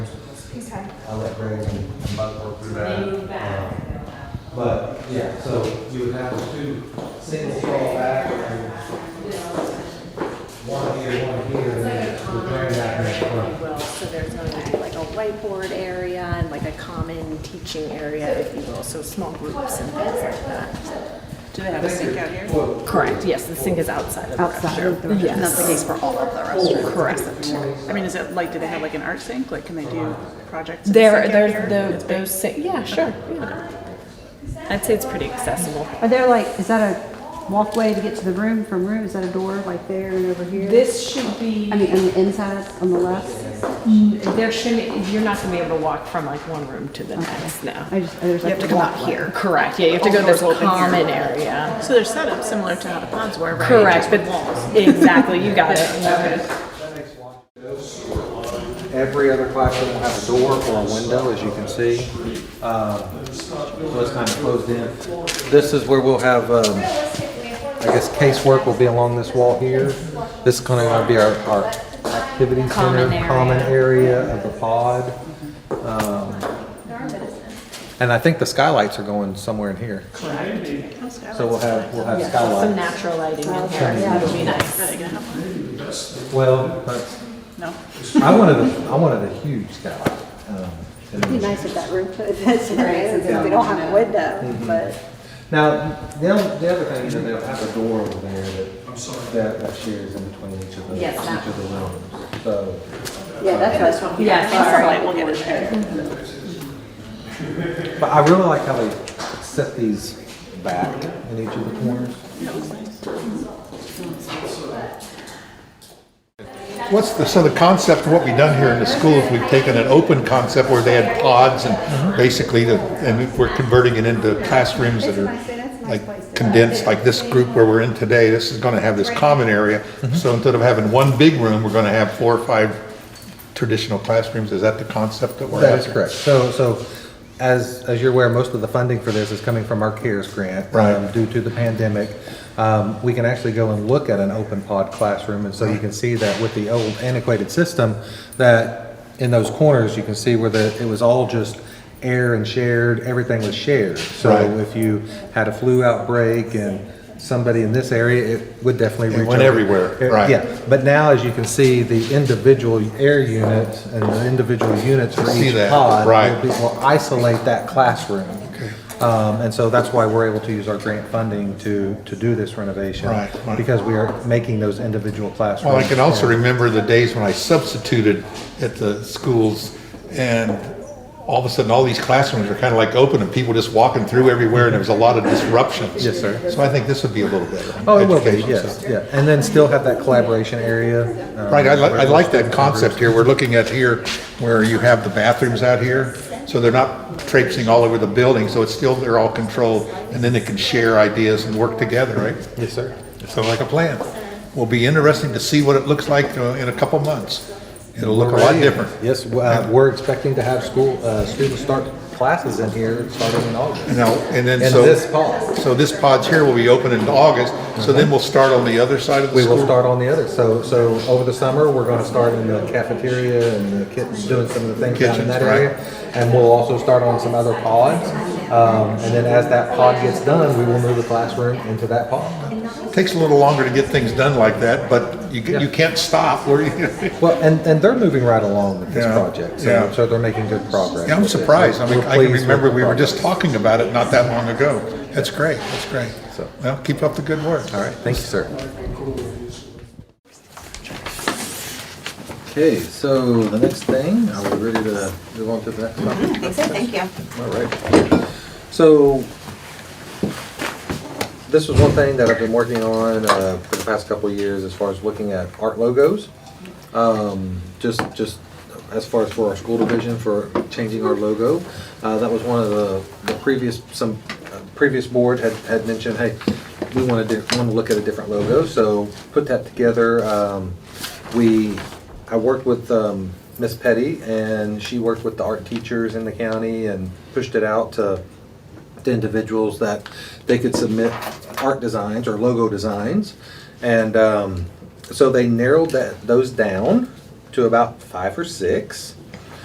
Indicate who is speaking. Speaker 1: I'll let Greg and and Buck work through
Speaker 2: They
Speaker 1: that. Um,
Speaker 2: move back.
Speaker 1: But, yeah, so you would have two single stall back and one here, one here, and then
Speaker 2: It's like a
Speaker 1: the very
Speaker 2: common
Speaker 1: back
Speaker 2: area,
Speaker 1: next
Speaker 2: if
Speaker 1: front.
Speaker 2: you will, so there's going to be like a whiteboard area and like a common teaching area, if you will, so small groups and things like that.
Speaker 3: Do they have a sink out here?
Speaker 1: Well,
Speaker 2: Correct, yes, the sink is outside of the
Speaker 4: outside of the restaurant.
Speaker 2: Yes.
Speaker 4: And That's the case for all of the restaurants.
Speaker 2: Correct.
Speaker 3: I mean, is it like, do they have like an art sink? Like, can they do projects? in the
Speaker 2: There,
Speaker 3: sink out here?
Speaker 2: there's the, those, si- yeah, sure, yeah. I'd say it's pretty accessible.
Speaker 4: Are there like, is that a walkway to get to the room from room? Is that a door like there and over here?
Speaker 2: This should be,
Speaker 4: I mean, on the inside, on the left?
Speaker 2: there shouldn't, you're not gonna be able to walk from like one room to the next, no.
Speaker 4: I just, there's like.
Speaker 3: have to come out
Speaker 4: walkway.
Speaker 3: here.
Speaker 2: Correct, yeah, you have to go
Speaker 3: All
Speaker 2: this
Speaker 3: doors open here.
Speaker 2: common area.
Speaker 3: So they're set up similar to how the ponds were, right?
Speaker 2: Correct,
Speaker 3: Just
Speaker 2: but
Speaker 3: with walls.
Speaker 2: exactly, you got it.
Speaker 1: Every other classroom will have a door or a window, as you can see. Um, So it's kind of closed in. This is where we'll have, um, I guess casework will be along this wall here. This is going to be our, our activity center,
Speaker 2: Common area.
Speaker 1: common area of the pod. Um, And I think the skylights are going somewhere in here. So we'll have, we'll have
Speaker 2: Some
Speaker 1: skylights.
Speaker 2: natural lighting in here, that would be nice.
Speaker 1: Well, that's
Speaker 3: No?
Speaker 1: I wanted a, I wanted a huge skylight. Um, and it
Speaker 4: It'd
Speaker 1: was-
Speaker 4: be nice if that room, that's, if we don't have a window, but.
Speaker 1: Now, the, oth- the other thing, is that they'll have a door over there that, that, that shares in between each of the, each
Speaker 2: Yes, that-
Speaker 1: of the rooms. So,
Speaker 4: Yeah, that's what.
Speaker 2: Yeah,
Speaker 3: Our light will get in there.
Speaker 1: but I really like how they set these back in each of the corners.
Speaker 5: What's the, so the concept, what we've done here in the school is we've taken an open concept where they had pods and basically the, and we're converting it into classrooms that are like condensed, like this group where we're in today, this is gonna have this common area. So instead of having one big room, we're gonna have four or five traditional classrooms. Is that the concept that we're
Speaker 1: That is
Speaker 5: after?
Speaker 1: correct. So, so as, as you're aware, most of the funding for this is coming from our CARES grant.
Speaker 5: Right.
Speaker 1: um, Due to the pandemic, um, we can actually go and look at an open pod classroom. And so you can see that with the old antiquated system, that in those corners, you can see where the, it was all just air and shared, everything was shared. So
Speaker 5: Right.
Speaker 1: if you had a flu outbreak and somebody in this area, it would definitely reach
Speaker 5: It went
Speaker 1: over.
Speaker 5: everywhere,
Speaker 1: Uh,
Speaker 5: right.
Speaker 1: Yeah, but now, as you can see, the individual air units and the individual units for
Speaker 5: See
Speaker 1: each
Speaker 5: that,
Speaker 1: pod
Speaker 5: right.
Speaker 1: will be- will isolate that classroom. Um, And so that's why we're able to use our grant funding to, to do this renovation.
Speaker 5: Right, right.
Speaker 1: Because we are making those individual classrooms.
Speaker 5: Well, I can also remember the days when I substituted at the schools and all of a sudden, all these classrooms were kind of like open and people just walking through everywhere and there was a lot of disruptions.
Speaker 1: Yes, sir.
Speaker 5: So I think this would be a little better.
Speaker 1: Oh, it will be,
Speaker 5: education, so.
Speaker 1: yes, yeah. And then still have that collaboration area. um,
Speaker 5: Right, I li- I
Speaker 1: where
Speaker 5: like
Speaker 1: those
Speaker 5: that concept here, we're looking at here, where you have the bathrooms out here, so they're not traipsing all over the building, so it's still, they're all controlled, and then they can share ideas and work together, right?
Speaker 1: Yes, sir.
Speaker 5: So like a plan. Will be interesting to see what it looks like uh, in a couple months. It'll look a lot different.
Speaker 1: Yes, w- uh, we're expecting to have school, uh, students start classes in here starting in August.
Speaker 5: No, and then
Speaker 1: In
Speaker 5: so.
Speaker 1: this pod.
Speaker 5: So this pod's here will be open in August, so then we'll start on the other side of the
Speaker 1: We
Speaker 5: school.
Speaker 1: will start on the other, so, so over the summer, we're gonna start in the cafeteria and the kitchen, doing some of the things down in
Speaker 5: Kitchens,
Speaker 1: that
Speaker 5: right.
Speaker 1: area. And we'll also start on some other pods, um, and then as that pod gets done, we will move the classroom into that pod.
Speaker 5: Takes a little longer to get things done like that, but you, ca- you can't stop. Where you-
Speaker 1: Well, and, and they're moving right along with this
Speaker 5: Yeah,
Speaker 1: project, so,
Speaker 5: yeah.
Speaker 1: so they're making good progress.
Speaker 5: Yeah, I'm
Speaker 1: with it.
Speaker 5: surprised. I mean,
Speaker 1: We're
Speaker 5: I can
Speaker 1: pleased with
Speaker 5: remember
Speaker 1: the
Speaker 5: we were
Speaker 1: progress.
Speaker 5: just talking about it not that long ago. That's great, that's great.
Speaker 1: So-
Speaker 5: Well, keep up the good work.
Speaker 1: All right, thank you, sir. Okay, so the next thing, are we ready to move on to the next topic?
Speaker 3: Mm, Thank you.
Speaker 1: All right. So, this was one thing that I've been working on uh, for the past couple of years as far as looking at art logos. Um, Just, just as far as for our school division for changing our logo. Uh, That was one of the, the previous, some uh, previous board had, had mentioned, hey, we want to, want to look at a different logo, so put that together. Um, We, I worked with um, Miss Petty, and she worked with the art teachers in the county and pushed it out to to individuals that they could submit art designs or logo designs. And um, so they narrowed that those down to about five or six.